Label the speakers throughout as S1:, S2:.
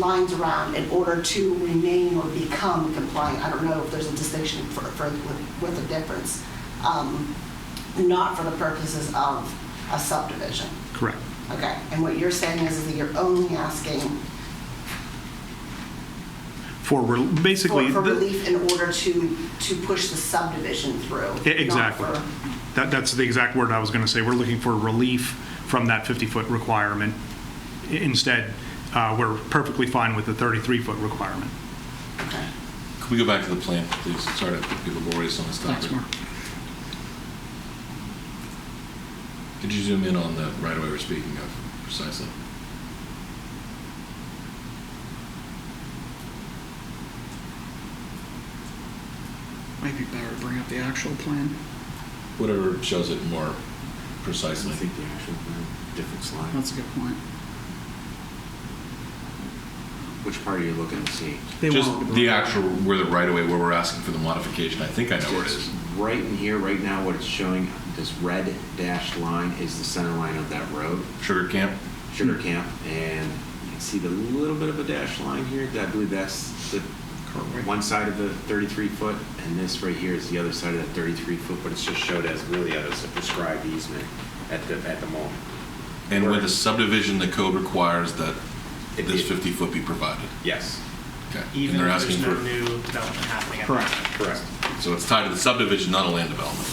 S1: lines around in order to remain or become compliant. I don't know if there's a distinction for, for, with- with a difference. Um, Not for the purposes of a subdivision.
S2: Correct.
S1: Okay, and what you're saying is that you're only asking
S2: For, rel-
S1: for,
S2: basically.
S1: for
S2: the-
S1: relief in order to, to push the subdivision through.
S2: E-
S1: not
S2: Exactly.
S1: for-
S2: That, that's the exact word I was going to say. We're looking for relief from that 50-foot requirement. I- Instead, uh, we're perfectly fine with the 33-foot requirement.
S1: Okay.
S3: Can we go back to the plan, please? Sorry to be laborious on this topic. Could you zoom in on the right-of-way we're speaking of precisely?
S4: Might be better to bring up the actual plan.
S3: Whatever shows it more
S5: I
S3: precisely.
S5: think the actual plan, different slide.
S4: That's a good point.
S5: Which part are you looking to see?
S4: They
S3: Just
S4: won't.
S3: the actual, where the right-of-way, where we're asking for the modification. I think I know where it
S5: It's
S3: is.
S5: Right in here, right now, what it's showing, this red dashed line is the center line of that road,
S3: Sugar Camp?
S5: Sugar Camp, and you can see the little bit of a dashed line here, I believe that's the, one side of the 33 foot, and this right here is the other side of that 33 foot, but it's just showed as really as a prescribed easement at the, at the moment.
S3: And with the subdivision, the code requires that
S5: It-
S3: this
S5: it-
S3: 50-foot be provided.
S5: Yes,
S3: Okay. And
S6: Even
S3: they're
S6: if
S3: asking
S6: there's no
S3: for-
S6: new development happening. at the
S4: Correct.
S6: time.
S5: correct,
S3: So it's tied to the subdivision, not a land development.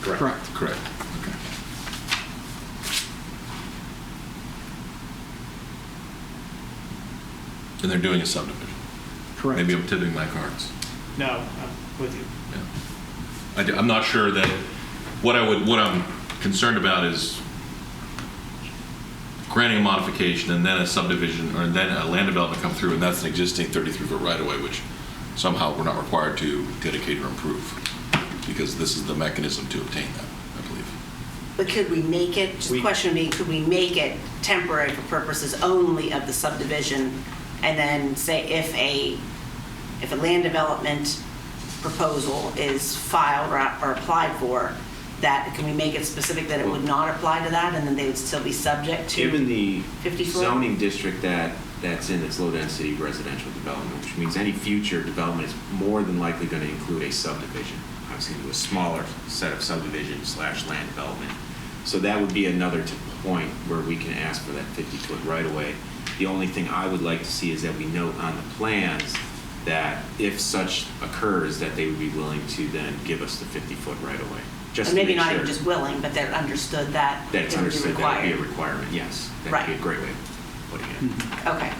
S5: correct.
S3: Correct. Okay. And they're doing a subdivision. Maybe I'm tipping my cards.
S6: No, I'm with you.
S3: Yeah. I do- I'm not sure that, what I would, what I'm concerned about is granting a modification and then a subdivision, or then a land development come through, and that's an existing 33-foot right-of-way, which somehow we're not required to dedicate or improve, because this is the mechanism to obtain that, I believe.
S1: But could we make it, just the question being, could we make it temporary for purposes only of the subdivision? And then say if a, if a land development proposal is filed or- or applied for, that, can we make it specific that it would not apply to that and then they would still be subject to?
S5: Given the
S1: 50 foot?
S5: zoning district that, that's in, it's low-density residential development, which means any future development is more than likely going to include a subdivision. Obviously, into a smaller set of subdivision slash land development. So that would be another t- point where we can ask for that 50-foot right-of-way. The only thing I would like to see is that we note on the plans that if such occurs, that they would be willing to then give us the 50-foot right-of-way. Just
S1: And
S5: to
S1: maybe
S5: make
S1: not even
S5: sure
S1: just willing, but that understood that it would be required.
S5: That's understood, that would be a requirement, yes. That'd be
S1: Right.
S5: a great way of putting it.
S1: Okay,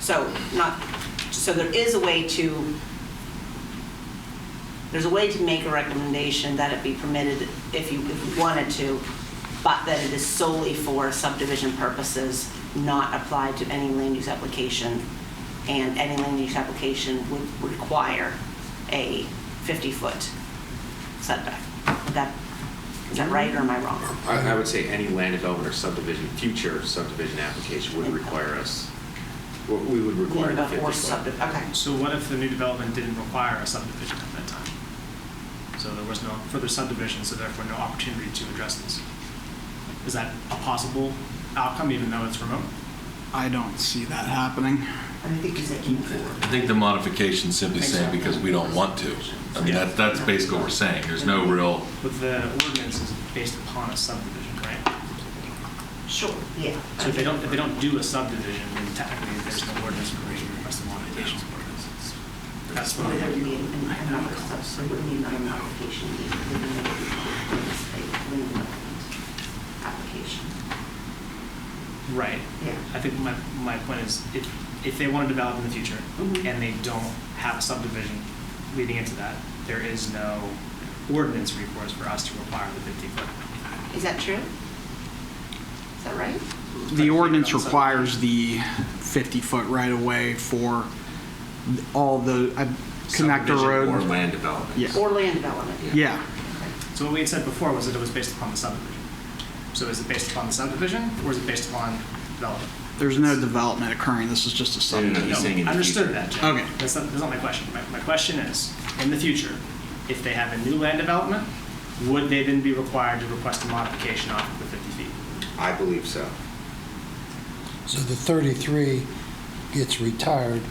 S1: so not, so there is a way to, there's a way to make a recommendation that it be permitted if you, if you wanted to, but that it is solely for subdivision purposes, not applied to any land use application. And any land use application would require a 50-foot setback. Is that, is that right or am I wrong?
S5: I I would say any land development or subdivision, future subdivision application would require us, we we would require the 50
S1: Or
S5: foot.
S1: subdi- okay.
S6: So what if the new development didn't require a subdivision at that time? So there was no further subdivision, so therefore no opportunity to address this. Is that a possible outcome, even though it's remote?
S4: I don't see that happening.
S1: I think he's looking for.
S3: I think the modification simply saying because we don't want to. I mean, that, that's basically what we're saying. There's no real,
S6: But the ordinance is based upon a subdivision, right?
S1: Sure, yeah.
S6: So if they don't, if they don't do a subdivision, then technically there's no ordinance provision for request of modifications. That's what
S1: There
S6: I'm-
S1: would be an- an economic stuff, so it would be an application, it would be a land development application.
S6: Right.
S1: Yeah.
S6: I think my, my point is, if, if they want to develop in the future,
S1: Mhm.
S6: and they don't have a subdivision leading into that, there is no ordinance recourse for us to require the fifty foot.
S1: Is that true? Is that right?
S4: The ordinance requires the 50-foot right-of-way for all the uh, connector
S5: Subdivision Or
S4: road.
S5: land development.
S4: Yeah.
S1: Or land development?
S4: Yeah,
S6: So what we had said before was that it was based upon the subdivision. So is it based upon the subdivision, or is it based upon development?
S4: there's no development occurring, this is just a
S5: No, no, no,
S4: subdivision.
S5: he's saying in the
S6: Understood
S5: future.
S6: that, Jim.
S4: Okay.
S6: That's not, that's not my question. My, my question is, in the future, if they have a new land development, would they then be required to request a modification off of the fifty feet?
S5: I believe so.
S7: So the 33 gets retired,